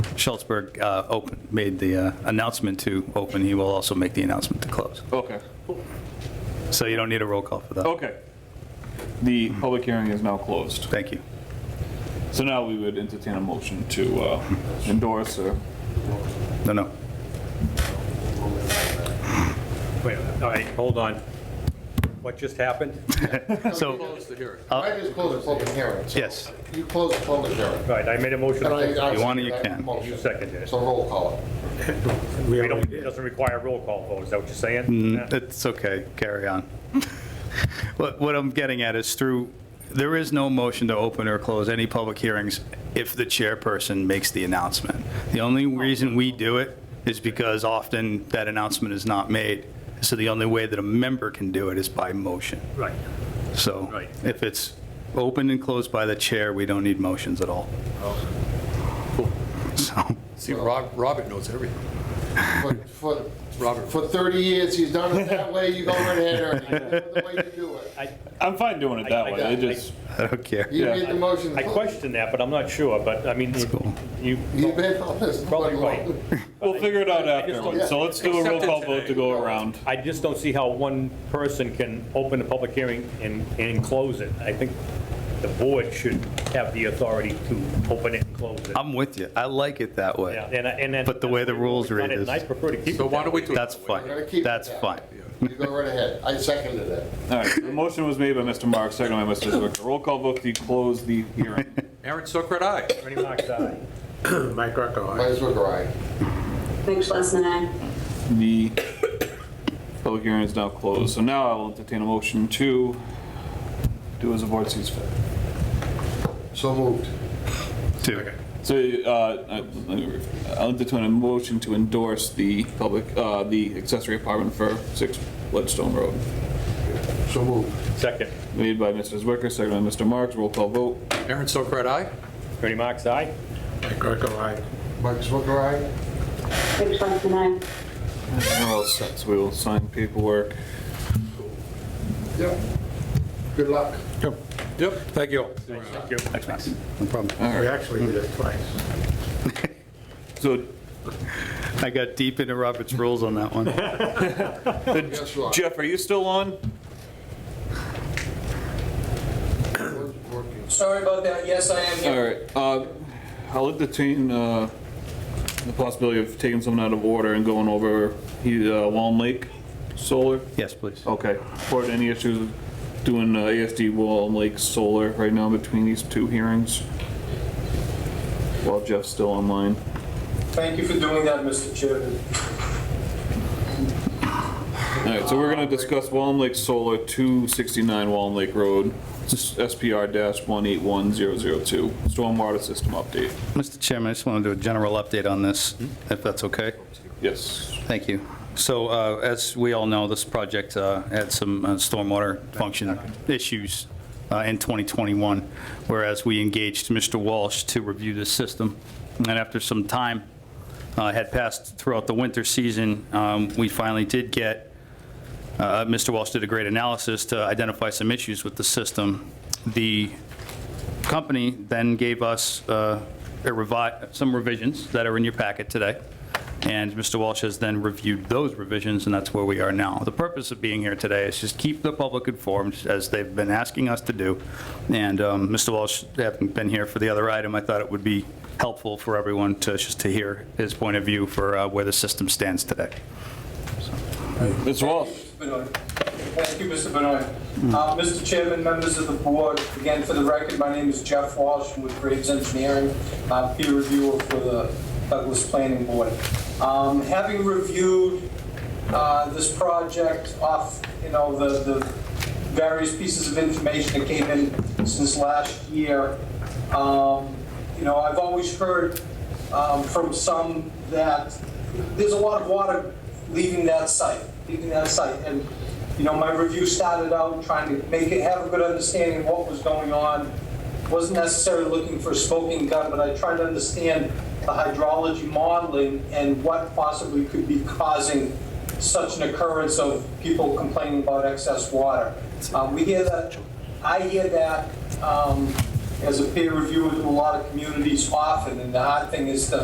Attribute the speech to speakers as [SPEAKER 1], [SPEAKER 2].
[SPEAKER 1] Schultzberg uh, open- made the uh, announcement to open, he will also make the announcement to close.
[SPEAKER 2] Okay,
[SPEAKER 1] So you don't need a roll call for that.
[SPEAKER 2] okay. The public hearing is now closed.
[SPEAKER 1] Thank you.
[SPEAKER 2] So now we would entertain a motion to uh, endorse or,
[SPEAKER 1] No, no.
[SPEAKER 3] Wait, all right, hold on. What just happened?
[SPEAKER 1] So,
[SPEAKER 4] I just closed the public hearing. so
[SPEAKER 1] yes,
[SPEAKER 4] You closed the public hearing.
[SPEAKER 3] Right, I made a motion.
[SPEAKER 4] And I- I
[SPEAKER 1] You want it, you
[SPEAKER 4] second that
[SPEAKER 1] can.
[SPEAKER 4] motion.
[SPEAKER 3] You seconded it.
[SPEAKER 4] So roll call.
[SPEAKER 3] We don't, it doesn't require a roll call vote, is that what you're saying? Yeah.
[SPEAKER 1] it's okay, carry on. What what I'm getting at is through, there is no motion to open or close any public hearings if the chairperson makes the announcement. The only reason we do it is because often that announcement is not made, so the only way that a member can do it is by motion.
[SPEAKER 3] Right,
[SPEAKER 1] So
[SPEAKER 3] Right.
[SPEAKER 1] if it's open and closed by the chair, we don't need motions at all. So,
[SPEAKER 5] See, Rob, Robert knows everything.
[SPEAKER 4] For- For,
[SPEAKER 5] Robert.
[SPEAKER 4] for 30 years, he's done it that way, you go right ahead, Ernie. That's the way you do it.
[SPEAKER 2] I'm fine doing it
[SPEAKER 3] I-
[SPEAKER 2] that
[SPEAKER 3] I-
[SPEAKER 2] way. It just,
[SPEAKER 1] I don't care.
[SPEAKER 4] You
[SPEAKER 2] Yeah.
[SPEAKER 4] made the motion.
[SPEAKER 3] I question that, but I'm not sure, but I mean,
[SPEAKER 1] cool.
[SPEAKER 3] you,
[SPEAKER 4] You've been on this.
[SPEAKER 3] Probably
[SPEAKER 4] for
[SPEAKER 3] right.
[SPEAKER 4] long.
[SPEAKER 2] we'll figure it out afterwards. So let's do a roll
[SPEAKER 5] Accept it
[SPEAKER 2] call vote
[SPEAKER 5] today.
[SPEAKER 2] to go around.
[SPEAKER 3] I just don't see how one person can open a public hearing and, and close it. I think the board should have the authority to open it and close it.
[SPEAKER 1] I'm with you. I like it that
[SPEAKER 3] Yeah,
[SPEAKER 1] way.
[SPEAKER 3] and, I- and. that-
[SPEAKER 1] Um, But the way the rules
[SPEAKER 3] We've done
[SPEAKER 1] read
[SPEAKER 3] it,
[SPEAKER 1] is-
[SPEAKER 3] And I prefer to keep it
[SPEAKER 5] So why
[SPEAKER 3] that
[SPEAKER 5] don't we
[SPEAKER 3] way.
[SPEAKER 5] do it?
[SPEAKER 1] That's
[SPEAKER 5] that way?
[SPEAKER 1] fine.
[SPEAKER 4] We're gonna keep it
[SPEAKER 1] That's
[SPEAKER 4] that
[SPEAKER 1] fine.
[SPEAKER 4] way. You go right ahead. I seconded it.
[SPEAKER 2] All right, the motion was made by Mr. Marks, second by Mr. Zwicker. Roll call vote to close the hearing.
[SPEAKER 5] Aaron Sokrat, aye.
[SPEAKER 3] Ernie Mac's aye.
[SPEAKER 6] Mike Greco, aye.
[SPEAKER 4] Might as well go right.
[SPEAKER 7] Big Schlesman, aye.
[SPEAKER 2] The public hearing is now closed. So now I will entertain a motion to do as the board sees fit.
[SPEAKER 4] So moved.
[SPEAKER 1] Two.
[SPEAKER 2] So uh, I- let me re- I'll entertain a motion to endorse the public, uh, the accessory apartment for 6 Leadstone Road.
[SPEAKER 4] So moved.
[SPEAKER 3] Second,
[SPEAKER 2] Made by Mr. Zwicker, seconded by Mr. Marks. Roll call vote.
[SPEAKER 5] Aaron Sokrat, aye.
[SPEAKER 3] Ernie Mac's aye.
[SPEAKER 6] Mike Greco, aye.
[SPEAKER 4] Mike Zwicker, aye.
[SPEAKER 7] Big Schlesman, aye.
[SPEAKER 2] We're all set, so we will sign paperwork.
[SPEAKER 4] Yep. Good luck.
[SPEAKER 5] Yep. Thank you all.
[SPEAKER 3] Thank you.
[SPEAKER 1] Thanks, Max. No problem.
[SPEAKER 6] We actually did it twice.
[SPEAKER 2] So
[SPEAKER 1] I got deep into Robert's rules on that one.
[SPEAKER 4] Guess what?
[SPEAKER 2] Jeff, are you still on?
[SPEAKER 4] It's working.
[SPEAKER 8] Sorry about that, yes, I am
[SPEAKER 2] All
[SPEAKER 8] here.
[SPEAKER 2] right, uh, I'll entertain uh, the possibility of taking someone out of order and going over he- uh, Walm Lake Solar.
[SPEAKER 1] Yes, please.
[SPEAKER 4] Oh.
[SPEAKER 2] Okay, for any issues with doing uh, ASD Walm Lake Solar right now between these two hearings? While Jeff's still online.
[SPEAKER 8] Thank you for doing that, Mr. Chairman.
[SPEAKER 2] All right, so we're gonna discuss Walm Lake Solar, 269 Walm Lake Road, SPR-181002, stormwater system update.
[SPEAKER 1] Mr. Chairman, I just want to do a general update on this, if that's okay.
[SPEAKER 2] Yes.
[SPEAKER 1] Thank you. So uh, as we all know, this project uh, had some uh, stormwater function issues uh, in 2021, whereas we engaged Mr. Walsh to review the system. And after some time uh, had passed throughout the winter season, um, we finally did get uh, Mr. Walsh did a great analysis to identify some issues with the system. The company then gave us uh, a revi, some revisions that are in your packet today, and Mr. Walsh has then reviewed those revisions, and that's where we are now. The purpose of being here today is just keep the public informed, as they've been asking us to do, and um, Mr. Walsh, having been here for the other item, I thought it would be helpful for everyone to, just to hear his point of view for uh, where the system stands today.
[SPEAKER 2] Mr. Walsh?
[SPEAKER 8] Benoit. Thank you, Mr. Benoit. Uh, Mr. Chairman, members of the board, again, for the record, my name is Jeff Walsh I'm with Graves Engineering, uh, peer reviewer for the Douglas Planning Board. Um, Having reviewed uh, this project off, you know, the the various pieces of information that came in since last year, um, you know, I've always heard um, from some that there's a lot of water leaving that site, leaving that site. And, you know, my review started out trying to make it, have a good understanding of what was going on. Wasn't necessarily looking for a smoking gun, but I tried to understand the hydrology modeling and what possibly could be causing such an occurrence of people complaining about excess water. Um, We hear that, I hear that um, as a peer reviewer to a lot of communities often, and the hard thing is to